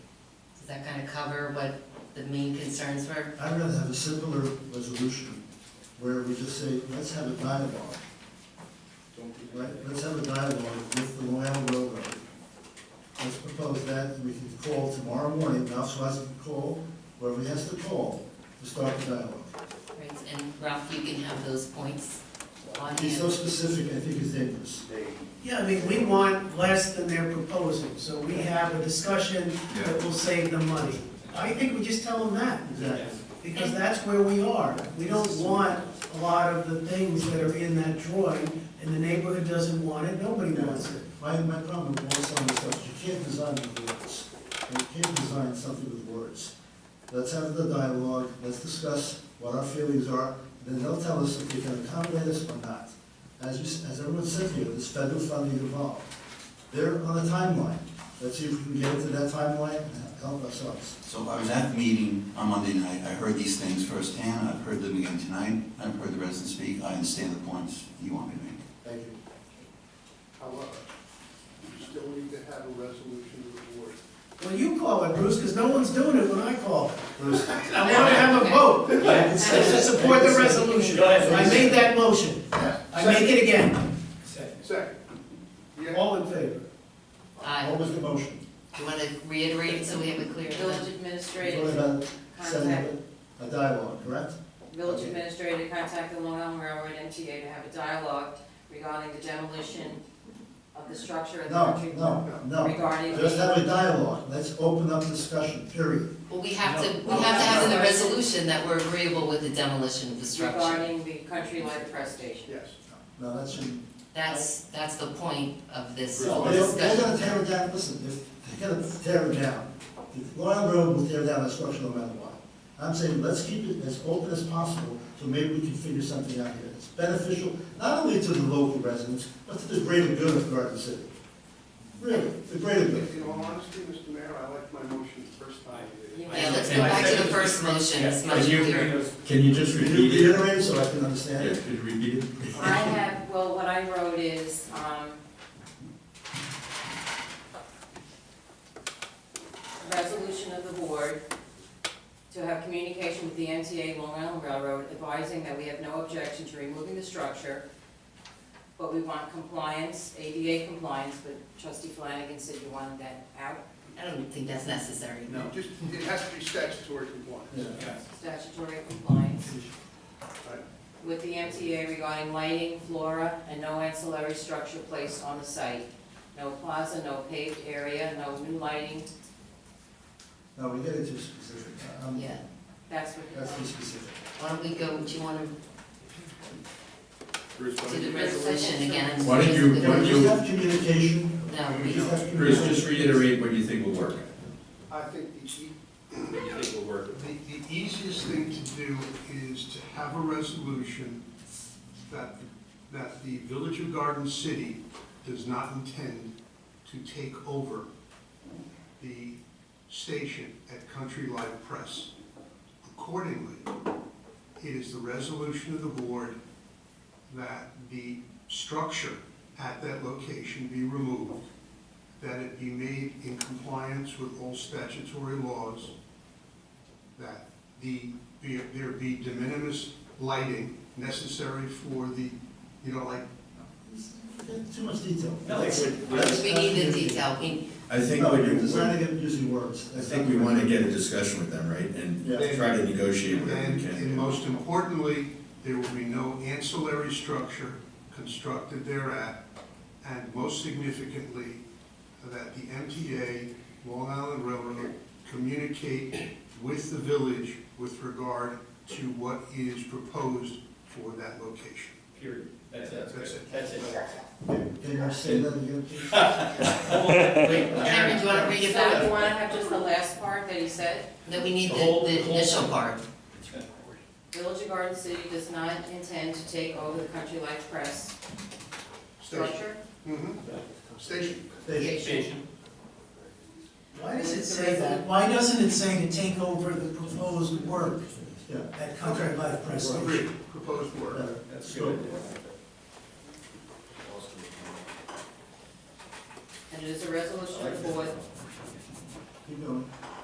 that kind of cover what the main concerns were? I'd rather have a simpler resolution where we just say, let's have a dialogue, right? Let's have a dialogue with the Long Island Railroad. Let's propose that, and we can call tomorrow morning, Ralph Swanson can call, whoever he has to call, to start the dialogue. Right, and Ralph, you can have those points on Be so hand. specific, I think it's dangerous. Yeah, I mean, we want less than they're proposing, so we have a discussion that will save them money. I think we just tell them that, Exactly. because that's where we are. We don't want a lot of the things that are in that drawing, and the neighborhood doesn't want it, nobody wants it. My, my problem with all some of this stuff, is you can't design with words. And You can't design something with words. Let's have the dialogue, let's discuss what our feelings are, then they'll tell us if we can accommodate us or not. As you, s- as everyone said here, there's federal funding involved. They're on a timeline. Let's see if we can get into that timeline and help ourselves. So I was at the meeting on Monday night, I heard these things firsthand, I've heard them again tonight, I've heard the residents speak, I understand the points you want me to make. Thank you. However, you still need to have a resolution of the board. Well, you call it, Bruce, because no one's doing it when I call. Bruce, I want to have a vote to support the resolution. I made that motion. I make it again. Second, yeah, All in favor? Aye. what was the motion? Do Uh, you want to reiterate it so we have it clear? Village It's administrator, only about setting up contact, a a dialogue, correct? village administrator contact the Long Island Railroad MTA to have a dialogue regarding the demolition of the structure at the No, country. no, no. Regarding Just the, have a dialogue, let's open up discussion, period. Well, we have to, we have to have in the resolution that we're agreeable with the demolition of the structure. regarding the country life press station. yes. No, that shouldn't. That's, that's the point of this No, They're they're discussion. gonna tear it down, listen, if they're gonna tear it down, the Long Island Railroad will tear down that structure no matter what. I'm saying, let's keep it as open as possible, so maybe we can figure something out here that's beneficial, not only to the local residents, but to the greater good of Garden City. Really, the greater In good. in all honesty, Mr. Mayor, I liked my motion the first time. Yeah, Yeah, let's go back to the first motion, it's much clearer. Can you just Can repeat you it? reiterate it so I can understand Yeah, it? could you repeat it? I have, well, what I wrote is, um, resolution of the board to have communication with the MTA Long Island Railroad advising that we have no objection to removing the structure, but we want compliance, ADA compliance, but trustee Flanagan said you wanted that out, I don't think that's necessary. No. Just, it has to be statutory Yeah. compliance. statutory compliance Right. with the MTA regarding lighting, flora, and no ancillary structure placed on the site. No plaza, no paved area, no new lighting, No, we get it too specific, um, Yeah, that's what. that's too specific. why don't we go, do you want to Bruce, do the resolution again? Why don't you- Can No, we just have communication? we Just don't. have Bruce, communication. just reiterate what you think will work. I think the e- The, the easiest thing to do is to have a resolution that, that the Village of Garden City does not intend to take over the station at Country Life Press. Accordingly, it is the resolution of the board that the structure at that location be removed, that it be made in compliance with all statutory laws, that the, be- there be de minimis lighting necessary for the, you know, like, Too much detail. We need the detail, we, I think No, what you're you, designing it using words. I think we want to get a discussion with them, right? And Yeah. try to negotiate whatever and, we and can. most importantly, there will be no ancillary structure constructed thereat, and most significantly, that the MTA, Long Island Railroad, communicate with the village with regard to what is proposed for that location. Period. That's it. That's it. That's it. Can you say that again, please? Karen, do you want to read it So you back? wanna have just the last part that he said? No, we need the, The whole- the the whole initial thing. part. Village of Garden City does not intend to take over the Country Life Press Station. structure. Mhm. Station. They- Station. Why does it say that? Why doesn't it say to take over the proposed work Yeah, at Country Life Press Station? Agreed. Proposed work. better. That's Scope. good. And it is a resolution of the board Keep going.